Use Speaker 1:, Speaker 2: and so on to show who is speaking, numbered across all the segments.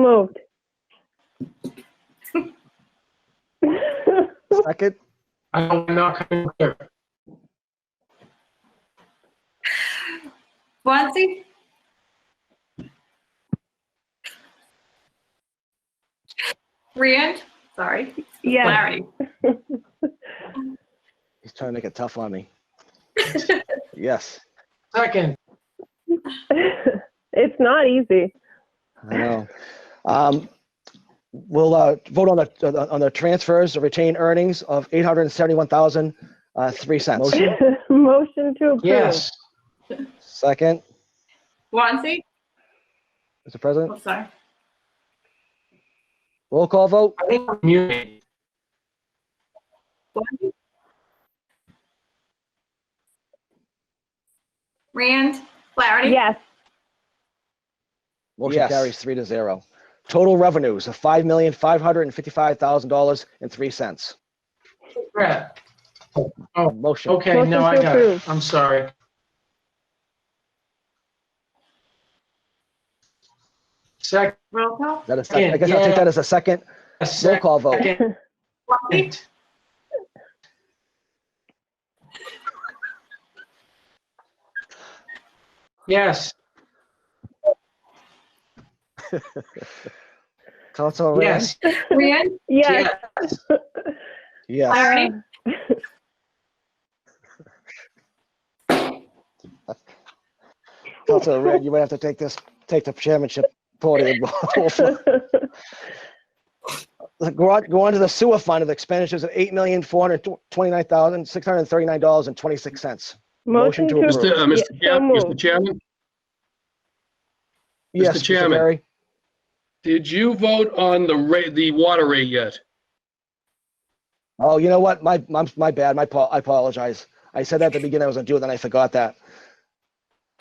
Speaker 1: Moved.
Speaker 2: Second?
Speaker 3: I don't know. how to-
Speaker 4: Guanxi? Rand? Sorry.
Speaker 1: Yes.
Speaker 4: Flaherty?
Speaker 2: He's trying to make it tough on me. Yes,
Speaker 3: Second,
Speaker 1: It's not easy.
Speaker 2: I know. Um, We'll uh, vote on the, on the- on the transfers, the retained earnings of eight hundred and seventy-one thousand, uh, three cents.
Speaker 1: Motion to approve.
Speaker 3: yes.
Speaker 2: Second,
Speaker 4: Guanxi?
Speaker 2: Mr. President,
Speaker 4: Oh, sorry.
Speaker 2: roll call vote?
Speaker 3: I think we're muted.
Speaker 4: Guanxi? Rand? Flaherty?
Speaker 1: Yes.
Speaker 2: Motion
Speaker 3: Yes.
Speaker 2: carries three to zero. Total revenues of five million, five hundred and fifty-five thousand dollars and three cents.
Speaker 3: Brett,
Speaker 2: Motion,
Speaker 3: okay,
Speaker 1: Motion
Speaker 3: no, I
Speaker 1: to
Speaker 3: got it.
Speaker 1: approve.
Speaker 3: I'm sorry. Second,
Speaker 4: Roll call?
Speaker 2: that is, I guess I'll take that as a second roll
Speaker 3: second.
Speaker 2: call vote.
Speaker 4: Guanxi?
Speaker 3: Yes,
Speaker 2: Council Ram?
Speaker 3: yes,
Speaker 4: Rand?
Speaker 1: Yes.
Speaker 3: yes,
Speaker 2: Yes,
Speaker 4: Flaherty?
Speaker 2: Council Ram, you might have to take this, take the chairmanship podium. Go on, go on to the sewer fund of expenditures of eight million, four hundred twenty-nine thousand, six hundred thirty-nine dollars and twenty-six cents. Motion
Speaker 1: Motion
Speaker 2: to
Speaker 1: to.
Speaker 2: approve.
Speaker 5: Mr. uh,
Speaker 1: Yeah, So
Speaker 5: Mr. Chair- Mr.
Speaker 1: moved.
Speaker 5: Chairman,
Speaker 2: Yes, Mr.
Speaker 5: Chairman.
Speaker 2: Barry?
Speaker 5: did you vote on the rate, the water rate yet?
Speaker 2: Oh, you know what? My, my, my bad. My, pa- I apologize. I said that at the beginning I was gonna do it, then I forgot that.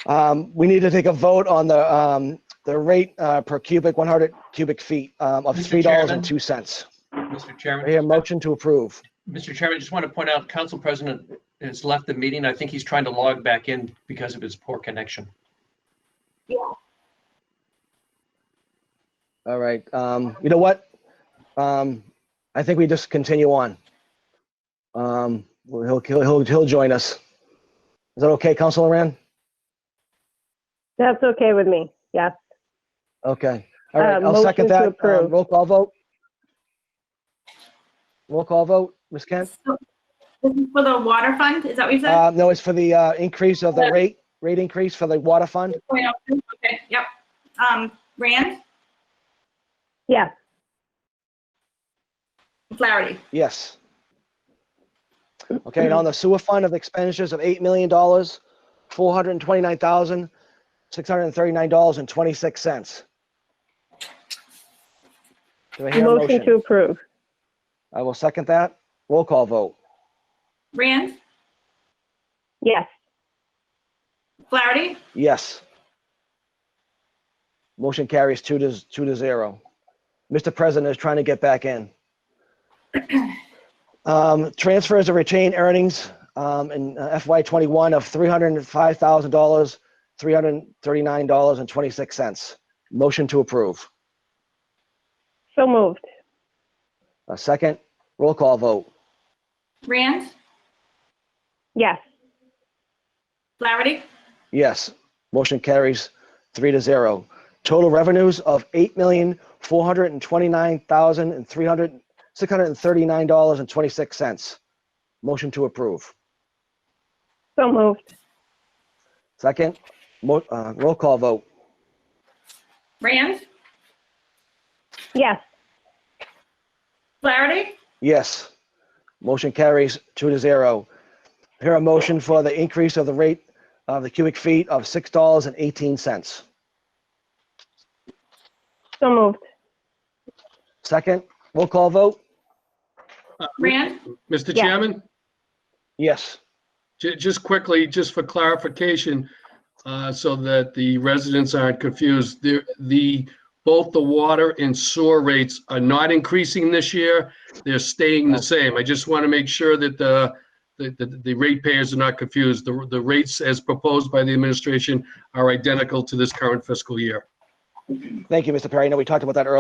Speaker 2: Um, we need to take a vote on the, um, the rate, uh, per cubic, one hundred cubic feet, um, of three
Speaker 6: Mr.
Speaker 2: dollars
Speaker 6: Chairman.
Speaker 2: and two cents.
Speaker 6: Mr. Chairman,
Speaker 2: Here, motion to approve.
Speaker 6: Mr. Chairman, I just want to point out, Council President has left the meeting. I think he's trying to log back in because of his poor connection.
Speaker 2: All right, um, you know what? Um, I think we just continue on. Um, he'll, he'll, he'll, he'll join us. Is that okay, Councilor Rand?
Speaker 1: That's okay with me. Yes.
Speaker 2: Okay, all right,
Speaker 1: Uh,
Speaker 2: I'll second
Speaker 1: motion to
Speaker 2: that. Um,
Speaker 1: approve.
Speaker 2: Roll call vote? Roll call vote, Ms. Kent?
Speaker 4: So, this is For the water fund, is that what you said?
Speaker 2: Uh, no, it's for the, uh, increase of the rate, rate increase for the water fund?
Speaker 4: Point out- Okay, yep. Um, Rand?
Speaker 1: Yes.
Speaker 4: Flaherty?
Speaker 2: Yes. Okay, and on the sewer fund of expenditures of eight million dollars, four hundred and twenty-nine thousand, six hundred and thirty-nine dollars and twenty-six cents. Do I hear a
Speaker 1: Motion to
Speaker 2: motion?
Speaker 1: approve.
Speaker 2: I will second that. Roll call vote.
Speaker 4: Rand?
Speaker 1: Yes.
Speaker 4: Flaherty?
Speaker 2: Yes. Motion carries two to, two to zero. Mr. President is trying to get back in. Um, transfers of retained earnings, um, in FY twenty-one of three hundred and five thousand dollars, three hundred and thirty-nine dollars and twenty-six cents. Motion to approve.
Speaker 1: So moved.
Speaker 2: A second, roll call vote.
Speaker 4: Rand?
Speaker 1: Yes.
Speaker 4: Flaherty?
Speaker 2: Yes. Motion carries three to zero. Total revenues of eight million, four hundred and twenty-nine thousand and three hundred, six hundred and thirty-nine dollars and twenty-six cents. Motion to approve.
Speaker 1: So moved.
Speaker 2: Second, mo, uh, roll call vote.
Speaker 4: Rand?
Speaker 1: Yes.
Speaker 4: Flaherty?
Speaker 2: Yes. Motion carries two to zero. Here a motion for the increase of the rate of the cubic feet of six dollars and eighteen cents.
Speaker 1: So moved.
Speaker 2: Second, roll call vote.
Speaker 4: Rand?
Speaker 5: Mr.
Speaker 1: Yeah.
Speaker 5: Chairman,
Speaker 2: Yes.
Speaker 5: ju- just quickly, just for clarification, uh, so that the residents aren't confused, the, the, both the water and sewer rates are not increasing this year. They're staying
Speaker 1: Oh.
Speaker 5: the same. I just want to make sure that the, that the, the ratepayers are not confused. The, the rates as proposed by the administration are identical to this current fiscal year.
Speaker 2: Thank you, Mr. Perry. I know we talked about that earlier.